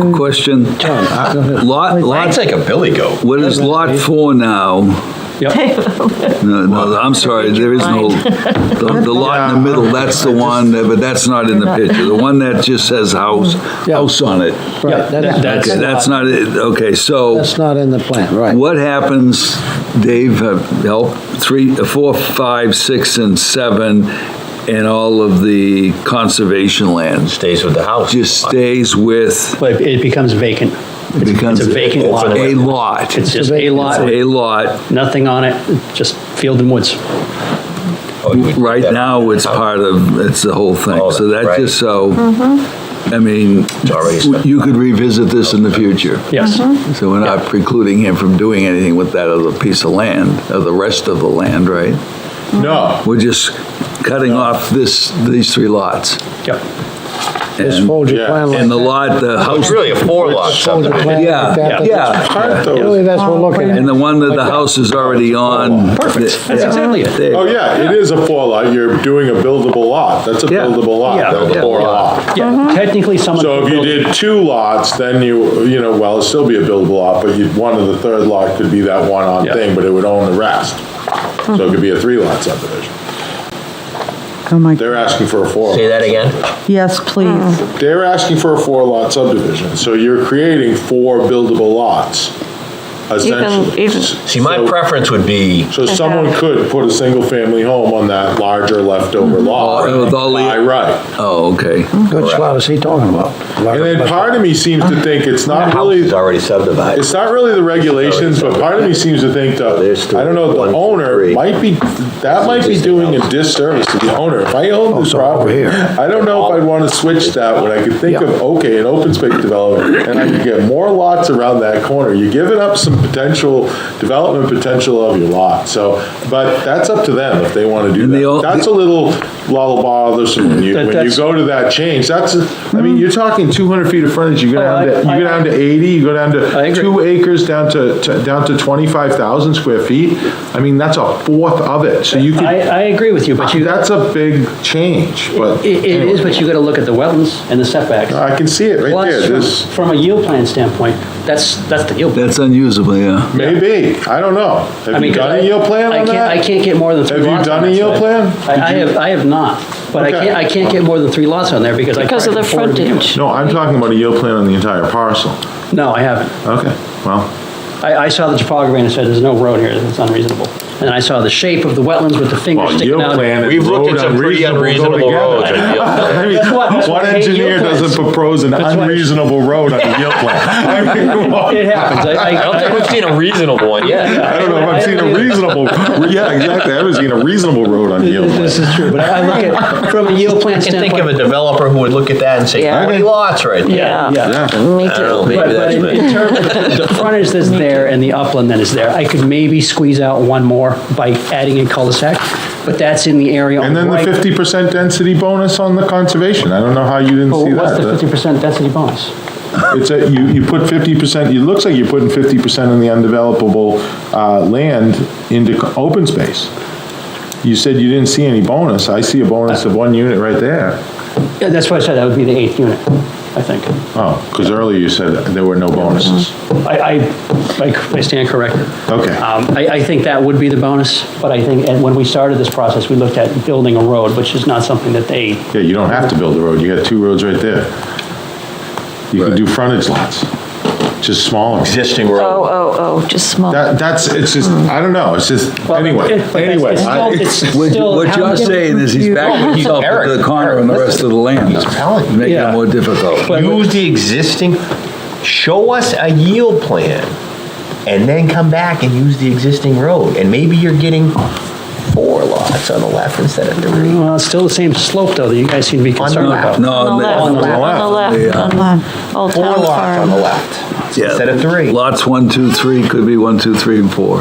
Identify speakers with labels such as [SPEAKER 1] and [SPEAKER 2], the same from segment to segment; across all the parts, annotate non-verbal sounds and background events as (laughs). [SPEAKER 1] Mm. (laughs)
[SPEAKER 2] Question. Uh, Lot,
[SPEAKER 3] I'd
[SPEAKER 2] lot,
[SPEAKER 3] take a Billy goat.
[SPEAKER 2] what is lot four now?
[SPEAKER 1] (laughs)
[SPEAKER 2] No, no, I'm sorry, there is no, the
[SPEAKER 1] (laughs)
[SPEAKER 2] the lot in the middle, that's the one, that- but that's not in the picture. The one that just says house, house on it.
[SPEAKER 1] Mm. Right, that's-
[SPEAKER 2] Okay, that's not, it. okay, so
[SPEAKER 1] That's not in the plan, right.
[SPEAKER 2] what happens, Dave, uh, help, three, uh, four, five, six, and seven, and all of the conservation lands?
[SPEAKER 3] Stays with the house.
[SPEAKER 2] Just stays with,
[SPEAKER 4] But it becomes vacant.
[SPEAKER 2] it becomes.
[SPEAKER 4] It's a vacant
[SPEAKER 2] it's
[SPEAKER 4] lot.
[SPEAKER 2] A lot.
[SPEAKER 4] It's just a lot,
[SPEAKER 2] It's a lot.
[SPEAKER 4] nothing on it, just field and woods.
[SPEAKER 3] Oh, you would-
[SPEAKER 2] Right
[SPEAKER 3] that-
[SPEAKER 2] now, it's part of, it's the whole thing.
[SPEAKER 3] Oh,
[SPEAKER 2] So that
[SPEAKER 3] right.
[SPEAKER 2] just so, I mean,
[SPEAKER 3] already spent.
[SPEAKER 2] you could revisit this in the future.
[SPEAKER 4] Yes.
[SPEAKER 5] Mm-hmm.
[SPEAKER 2] So we're not precluding him from doing anything with that other piece of land, or the rest of the land, right?
[SPEAKER 6] No,
[SPEAKER 2] We're just cutting off this, these three lots.
[SPEAKER 4] Yep.
[SPEAKER 5] Mm-hmm.
[SPEAKER 1] Just fold your plan like
[SPEAKER 2] And the lot, the
[SPEAKER 3] Oh, It's
[SPEAKER 2] house,
[SPEAKER 3] really a four lot
[SPEAKER 1] fold your
[SPEAKER 3] subdivision.
[SPEAKER 1] plan
[SPEAKER 2] Yeah,
[SPEAKER 1] like that.
[SPEAKER 2] yeah.
[SPEAKER 6] aren't
[SPEAKER 1] Really,
[SPEAKER 6] those?
[SPEAKER 1] that's what we're looking at.
[SPEAKER 2] and the one that the house is already on.
[SPEAKER 4] Perfect. That's exactly it.
[SPEAKER 2] There you
[SPEAKER 6] Oh,
[SPEAKER 2] go.
[SPEAKER 6] yeah, it is a four lot, you're doing a buildable lot, that's a
[SPEAKER 2] Yeah.
[SPEAKER 6] buildable lot,
[SPEAKER 4] Yeah.
[SPEAKER 6] that's a
[SPEAKER 2] Yeah.
[SPEAKER 6] four lot.
[SPEAKER 4] Yeah, technically someone.
[SPEAKER 6] So if you did two lots, then you, you know, well, it'd still be a buildable lot, but you'd, one of the third lot could be that one on
[SPEAKER 4] Yeah.
[SPEAKER 6] thing, but it would own the rest. So it could be a three lot subdivision.
[SPEAKER 7] Oh my,
[SPEAKER 6] They're asking for a four.
[SPEAKER 3] Say that again?
[SPEAKER 7] yes, please.
[SPEAKER 6] They're asking for a four lot subdivision, so you're creating four buildable lots, essentially.
[SPEAKER 5] even-
[SPEAKER 3] See, my
[SPEAKER 6] So-
[SPEAKER 3] preference would be
[SPEAKER 6] So someone could put a single-family home on that larger leftover lot.
[SPEAKER 2] Oh, with all the-
[SPEAKER 6] By right.
[SPEAKER 2] Oh, okay.
[SPEAKER 1] Which lot is he talking about?
[SPEAKER 6] And then part of me seems to think it's
[SPEAKER 3] the
[SPEAKER 6] not
[SPEAKER 3] house
[SPEAKER 6] really,
[SPEAKER 3] is already subdivided.
[SPEAKER 6] Uh, it's not really the regulations, but part of me seems to think
[SPEAKER 3] There's
[SPEAKER 6] that,
[SPEAKER 3] three.
[SPEAKER 6] I don't know,
[SPEAKER 3] One,
[SPEAKER 6] the
[SPEAKER 3] two,
[SPEAKER 6] owner
[SPEAKER 3] three.
[SPEAKER 6] might be, that might be doing a disservice to the owner. If I
[SPEAKER 4] Oh,
[SPEAKER 6] owned this
[SPEAKER 1] so over
[SPEAKER 6] property,
[SPEAKER 1] here.
[SPEAKER 6] I don't know if I'd want to switch that when I could think of, okay, an open space development, and I could get more lots around that corner. You're giving up some potential, development potential of your lot, so, but that's up to them if they want to do
[SPEAKER 2] And they all-
[SPEAKER 6] that. That's a little lullaby, bothersome when you,
[SPEAKER 4] That-
[SPEAKER 6] when you
[SPEAKER 4] that's-
[SPEAKER 6] go to that change, that's, I mean, you're talking 200 feet of frontage, you go
[SPEAKER 4] Oh, I-
[SPEAKER 6] down to, you
[SPEAKER 4] I-
[SPEAKER 6] go down to 80, you go down
[SPEAKER 4] I
[SPEAKER 6] to
[SPEAKER 4] agree.
[SPEAKER 6] two acres, down to, to- down to 25,000 square feet. I mean, that's a fourth of it, so you
[SPEAKER 4] I,
[SPEAKER 6] could,
[SPEAKER 4] I agree with you, but you,
[SPEAKER 6] that's a big change, but.
[SPEAKER 4] it it is, but you gotta look at the wetlands and the setbacks.
[SPEAKER 6] I can see it right there,
[SPEAKER 4] Plus, from-
[SPEAKER 6] this,
[SPEAKER 4] from a yield plan standpoint, that's, that's the yield. plan.
[SPEAKER 2] That's unusable, yeah.
[SPEAKER 6] maybe, I don't know.
[SPEAKER 4] I
[SPEAKER 6] Have
[SPEAKER 4] mean,
[SPEAKER 6] you
[SPEAKER 4] 'cause
[SPEAKER 6] done
[SPEAKER 4] I-
[SPEAKER 6] a yield plan
[SPEAKER 4] I
[SPEAKER 6] on
[SPEAKER 4] can't- I
[SPEAKER 6] that?
[SPEAKER 4] can't get more than three
[SPEAKER 6] Have you
[SPEAKER 4] lots on
[SPEAKER 6] done a
[SPEAKER 4] that
[SPEAKER 6] yield
[SPEAKER 4] side.
[SPEAKER 6] plan?
[SPEAKER 4] I, I
[SPEAKER 6] Did you-
[SPEAKER 4] have, I have not, but I
[SPEAKER 6] Okay.
[SPEAKER 4] can't, I can't get more than three lots on there because I.
[SPEAKER 5] Because of
[SPEAKER 4] tried
[SPEAKER 5] the
[SPEAKER 4] before to begin with.
[SPEAKER 5] frontage.
[SPEAKER 6] No, I'm talking about a yield plan on the entire parcel.
[SPEAKER 4] No, I haven't.
[SPEAKER 6] Okay, well.
[SPEAKER 4] I, I saw the topography and I said, there's no road here, it's unreasonable. And then I saw the shape of the wetlands with the fingers
[SPEAKER 6] Well,
[SPEAKER 4] sticking
[SPEAKER 6] yield
[SPEAKER 4] out.
[SPEAKER 6] plan and
[SPEAKER 3] We've looked
[SPEAKER 6] road
[SPEAKER 3] at some pretty
[SPEAKER 6] unreasonable
[SPEAKER 3] unreasonable
[SPEAKER 6] go
[SPEAKER 3] roads. on
[SPEAKER 6] together. (laughs)
[SPEAKER 3] yield plan.
[SPEAKER 6] I mean,
[SPEAKER 4] why- that's
[SPEAKER 6] One
[SPEAKER 4] why I hate
[SPEAKER 6] engineer
[SPEAKER 4] yield plans.
[SPEAKER 6] doesn't propose an
[SPEAKER 4] why-
[SPEAKER 6] unreasonable road on a yield
[SPEAKER 4] (laughs)
[SPEAKER 6] plan. I mean, well,
[SPEAKER 4] It happens. I, I,
[SPEAKER 3] I don't think we've seen a reasonable one yet.
[SPEAKER 6] I don't know if I've seen a reasonable, yeah, exactly, I haven't seen a reasonable road on a yield plan.
[SPEAKER 4] This is true, but I I look at, from a yield plan
[SPEAKER 3] I can think of a
[SPEAKER 4] standpoint.
[SPEAKER 3] developer who would look at that and say,
[SPEAKER 5] Yeah.
[SPEAKER 3] 20 lots right there.
[SPEAKER 5] Yeah,
[SPEAKER 4] Yeah.
[SPEAKER 5] me
[SPEAKER 3] I don't know,
[SPEAKER 5] too.
[SPEAKER 3] maybe
[SPEAKER 4] But, but
[SPEAKER 3] that's.
[SPEAKER 4] in
[SPEAKER 3] me.
[SPEAKER 4] in terms of the frontage that's there and the upland that is there, I could maybe squeeze out one more by adding a cul-de-sac, but that's in the area. on
[SPEAKER 6] And then the
[SPEAKER 4] right.
[SPEAKER 6] fifty percent density bonus on the conservation, I don't know how you didn't
[SPEAKER 4] Well,
[SPEAKER 6] see
[SPEAKER 4] Oh, What's the
[SPEAKER 6] that.
[SPEAKER 4] fifty percent density bonus?
[SPEAKER 6] It's a, you, you put fifty percent, it looks like you're putting fifty percent of the undevelopable, uh, land into co- open space. You said you didn't see any bonus, I see a bonus of one unit right there.
[SPEAKER 4] Yeah, that's what I said, that would be the eighth unit, I think.
[SPEAKER 6] Oh, because earlier you said there were no bonuses.
[SPEAKER 4] I, I, I- I stand corrected.
[SPEAKER 6] Okay.
[SPEAKER 4] Um, I, I think that would be the bonus, but I think, and when we started this process, we looked at building a road, which is not something that they,
[SPEAKER 6] Yeah, you don't have to build a road, you got two roads right there. You can do frontage lots, just smaller.
[SPEAKER 3] Existing
[SPEAKER 5] Oh,
[SPEAKER 3] road.
[SPEAKER 5] oh, oh, just small.
[SPEAKER 6] That, that's, it's just, I don't know, it's just,
[SPEAKER 4] Well,
[SPEAKER 6] anyway,
[SPEAKER 4] it- but it's-
[SPEAKER 6] anyway.
[SPEAKER 4] it's
[SPEAKER 6] I-
[SPEAKER 4] still- it's-
[SPEAKER 2] What
[SPEAKER 4] Still,
[SPEAKER 2] what
[SPEAKER 4] how
[SPEAKER 2] you're
[SPEAKER 4] do you-
[SPEAKER 2] saying is he's backing himself
[SPEAKER 3] Eric,
[SPEAKER 2] into the corner on the rest of the land.
[SPEAKER 3] telling you.
[SPEAKER 2] Making it
[SPEAKER 4] Yeah.
[SPEAKER 2] more difficult.
[SPEAKER 3] Use the existing, show us a yield plan, and then come back and use the existing road. And maybe you're getting four lots on the left instead of three.
[SPEAKER 4] well, it's still the same slope though, that you guys seem to be concerned
[SPEAKER 3] the
[SPEAKER 4] about.
[SPEAKER 2] No,
[SPEAKER 5] On the left, on the left,
[SPEAKER 2] yeah.
[SPEAKER 5] on the Old
[SPEAKER 3] Four
[SPEAKER 5] Town
[SPEAKER 3] lots on the
[SPEAKER 5] Farm.
[SPEAKER 3] left
[SPEAKER 2] Yeah.
[SPEAKER 3] instead of three.
[SPEAKER 2] Lots one, two, three could be one, two, three, and four.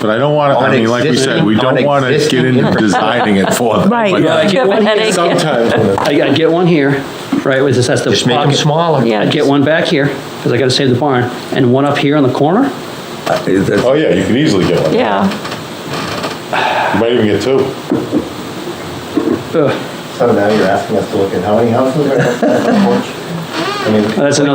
[SPEAKER 6] But I don't want to, I mean, like we said, we don't want to get into designing it for them.
[SPEAKER 5] Right,
[SPEAKER 6] but
[SPEAKER 4] Yeah, I
[SPEAKER 5] you
[SPEAKER 4] get
[SPEAKER 5] have a
[SPEAKER 4] one.
[SPEAKER 5] headache.
[SPEAKER 6] Sometimes when it's-
[SPEAKER 4] I, I get one here, right, which is, that's the
[SPEAKER 3] Just make them
[SPEAKER 4] pocket.
[SPEAKER 3] smaller.
[SPEAKER 5] Yeah.
[SPEAKER 4] I get one back here, because I gotta save the barn, and one up here on the corner?
[SPEAKER 2] Is that-
[SPEAKER 6] Oh, yeah, you could easily get one. You
[SPEAKER 5] Yeah,
[SPEAKER 6] might even get two.
[SPEAKER 4] Ugh,
[SPEAKER 8] So now you're asking us to look at how many houses are on the porch? I mean,
[SPEAKER 4] That's another